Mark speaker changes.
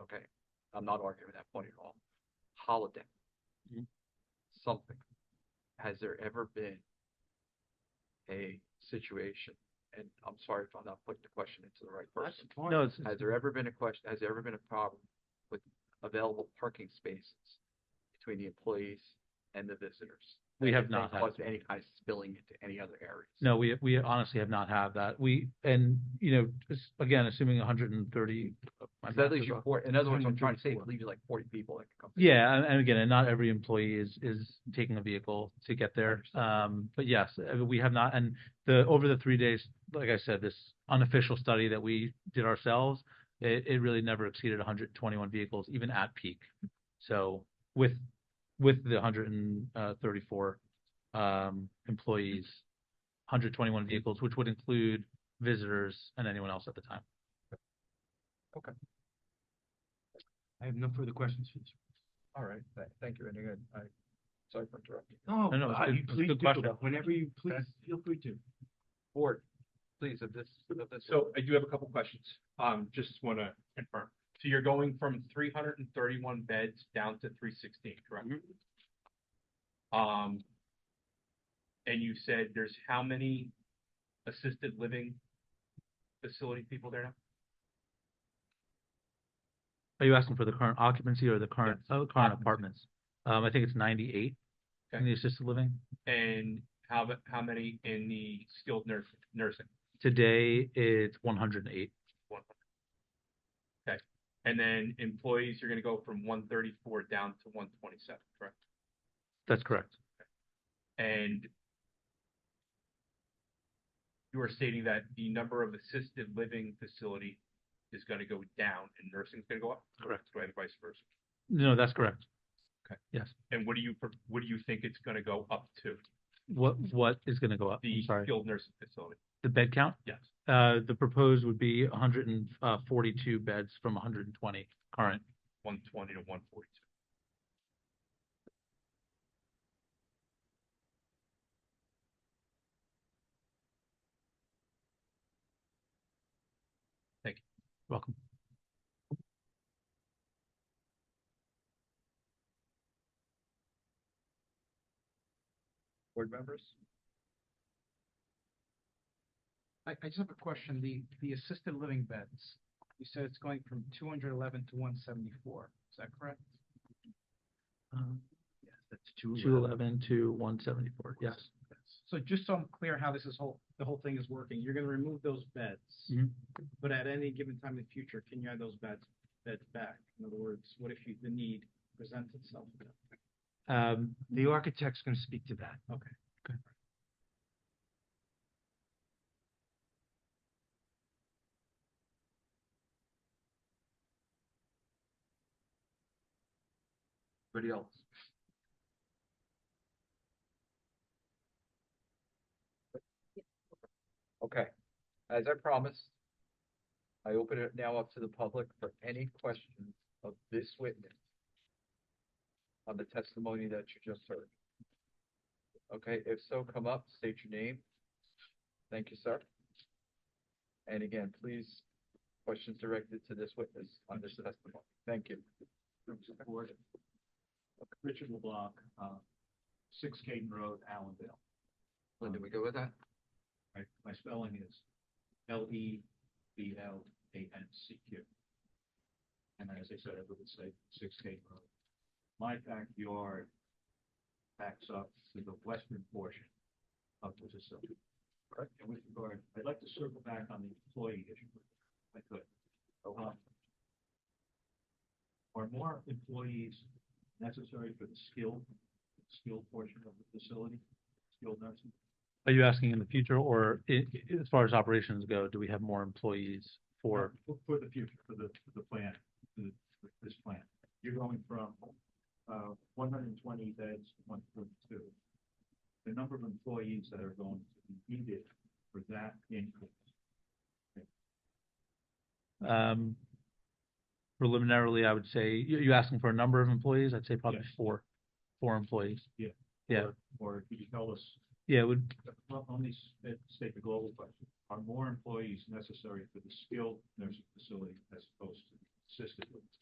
Speaker 1: okay, I'm not arguing that point at all. Holiday.
Speaker 2: Mhm.
Speaker 1: Something. Has there ever been a situation, and I'm sorry if I'm not putting the question into the right person.
Speaker 2: No, it's,
Speaker 1: Has there ever been a question, has there ever been a problem with available parking spaces between the employees and the visitors?
Speaker 2: we have
Speaker 1: If they
Speaker 2: not had.
Speaker 1: caused any kind of spilling into any other areas?
Speaker 2: No, we, we honestly have not had that. We, and, you know, just, again, assuming hundred and thirty.
Speaker 1: So that leaves you four, in other words, what I'm trying to say, it
Speaker 2: 134.
Speaker 1: leaves you like forty people that could come. in.
Speaker 2: Yeah, and, and again, and not every employee is, is taking a vehicle to get there.
Speaker 1: Understood.
Speaker 2: Um, but yes, uh, we have not, and the, over the three days, like I said, this unofficial study that we did ourselves, it, it really never exceeded hundred and twenty-one vehicles, even at peak. So with, with the hundred and uh, thirty-four, um, employees, hundred twenty-one vehicles, which would include visitors and anyone else at the time.
Speaker 3: I have no further questions for this.
Speaker 1: All right, tha- thank you, and again, I, sorry for interrupting.
Speaker 3: No,
Speaker 2: no, it's
Speaker 3: uh,
Speaker 2: good-
Speaker 3: you
Speaker 2: it's a
Speaker 3: please do,
Speaker 2: good question.
Speaker 3: whenever you please, feel free to.
Speaker 1: Board, please, of this, of this.
Speaker 4: So I do have a couple questions. Um, just want to confirm. So you're going from three hundred and thirty-one beds down to three sixteen, correct?
Speaker 2: Mm-hmm.
Speaker 4: Um, and you said there's how many assisted living facility people there now?
Speaker 2: Are you asking for the current occupancy or the current, oh, current
Speaker 4: occupancy.
Speaker 2: apartments? Um, I think it's ninety-eight in
Speaker 4: Okay.
Speaker 2: the assisted living.
Speaker 4: And how, the- how many in the skilled nurs- nursing?
Speaker 2: Today, it's one hundred and eight.
Speaker 4: And then employees, you're going to go from one thirty-four down to one twenty-seven, correct?
Speaker 2: That's correct.
Speaker 4: And you are stating that the number of assisted living facility is gonna go down and nursing is gonna go up?
Speaker 2: Correct.
Speaker 4: Do I have vice versa?
Speaker 2: No, that's correct.
Speaker 4: Okay.
Speaker 2: Yes.
Speaker 4: And what do you, pro- what do you think it's gonna go up to?
Speaker 2: What, what is gonna go up? I'm
Speaker 4: The
Speaker 2: sorry.
Speaker 4: skilled nursing facility?
Speaker 2: The bed count?
Speaker 4: Yes.
Speaker 2: Uh, the proposed would be hundred and uh, forty-two beds from hundred and twenty current.
Speaker 4: One twenty to one forty-two?
Speaker 2: Welcome.
Speaker 1: Board members?
Speaker 3: I, I just have a question, the, the assisted living beds, you said it's going from two hundred eleven to one seventy-four, is that correct?
Speaker 1: Yes, that's two.
Speaker 2: Two eleven to one seventy-four, yes.
Speaker 3: So just so I'm clear how this is whole, the whole thing is working, you're gonna remove those beds.
Speaker 2: Mhm.
Speaker 3: But at any given time in the future, can you add those beds, beds back? In other words, what if you, the need presents itself?
Speaker 2: Um,
Speaker 3: The architect's gonna speak to that. Okay.
Speaker 1: Everybody else? Okay, as I promised, I open it now up to the public for any questions of this witness on the testimony that you just heard. Okay, if so, come up, state your name. Thank you, sir. And again, please, questions directed to this witness on this testimony. Thank you.
Speaker 5: Richard LeBlanc, uh, Six Caden Road, Allendale.
Speaker 1: Lynn, do we go with that?
Speaker 5: My, my spelling is L E B L A N C Q. And as I said, I would say Six Caden Road. My backyard backs up to the western portion of the facility.
Speaker 1: Correct.
Speaker 5: And with regard, I'd like to circle back on the employee issue, if I could. Um, Are more employees necessary for the skilled, skilled portion of the facility, skilled nursing?
Speaker 2: are you asking in the future or i- i- as far as operations go, do we have more employees for?
Speaker 5: For, for the future, for the, for the plan, for the- for this plan. You're going from, uh, one hundred and twenty beds to one forty-two. The number of employees that are going to be needed for that increase.
Speaker 2: Um, preliminarily, I would say, you, you asking for a number of employees? I'd say probably
Speaker 5: Yes.
Speaker 2: four, four employees.
Speaker 5: Yeah.
Speaker 2: Yeah,
Speaker 5: Or could you tell us,
Speaker 2: yeah, it would,
Speaker 5: well, let me s- state the global question. Are more employees necessary for the skilled nursing facility as opposed to assisted? living?